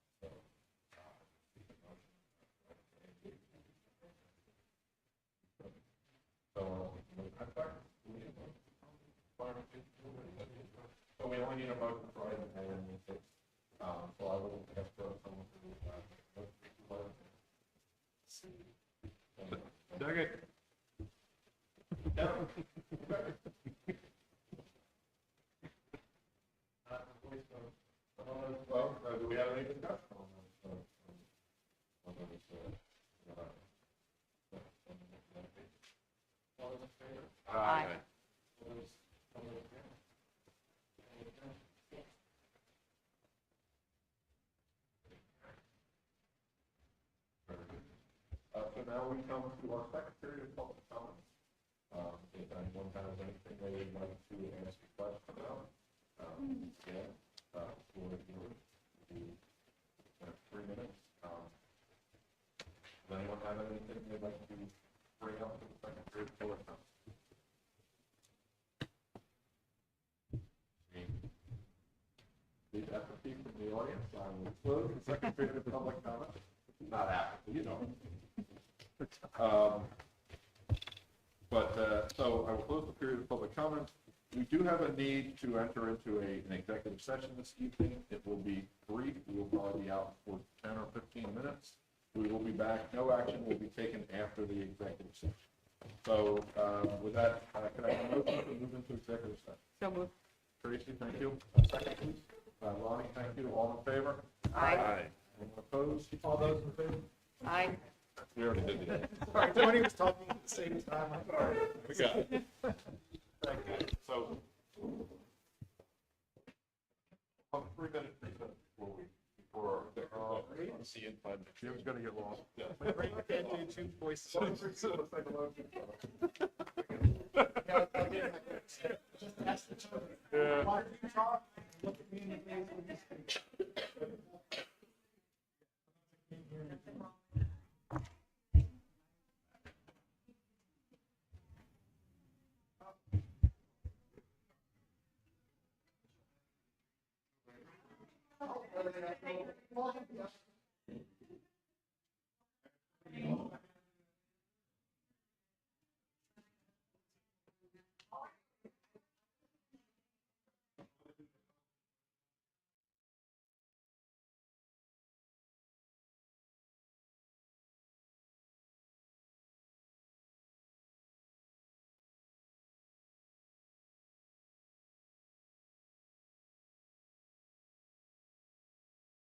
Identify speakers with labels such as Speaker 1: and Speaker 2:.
Speaker 1: requirement. So we only need a motion for item A and B six. Um, so I will ask for someone to, uh, vote for item A.
Speaker 2: Second.
Speaker 1: Uh, voice vote. All those vote, uh, do we have any discussion on those? votes? On those, uh, uh, All those in favor?
Speaker 2: Aye.
Speaker 1: Uh, so now we come to our second period of public comments. Um, if anyone has anything they would like to ask a question about, um, yeah, uh, for the, the, uh, three minutes, um, does anyone have anything they'd like to bring up for the second period of public comments? These apathy from the audience, I will close the second period of public comment. Not apathy, you know. Um, But, uh, so I will close the period of public comment. We do have a need to enter into a, an executive session this evening. It will be brief. We will probably be out for ten or fifteen minutes. We will be back. No action will be taken after the executive session. So, uh, with that, uh, can I have a motion to move into executive session?
Speaker 3: So moved.
Speaker 1: Tracy, thank you. Second, please. Uh, Lonnie, thank you. All in favor?
Speaker 3: Aye.
Speaker 1: Anyone opposed? All those in favor?
Speaker 3: Aye.
Speaker 1: We already did that.
Speaker 4: Sorry, Tony was talking at the same time. I'm sorry.
Speaker 1: We got it. Thank you. So. About three minutes before we, before.
Speaker 4: Oh,
Speaker 1: our-
Speaker 2: See you in five minutes.
Speaker 1: Jim's gonna get lost.
Speaker 4: My brain can't do two voices.
Speaker 1: Yeah.
Speaker 4: Why do you talk? Look at me in the face when you speak.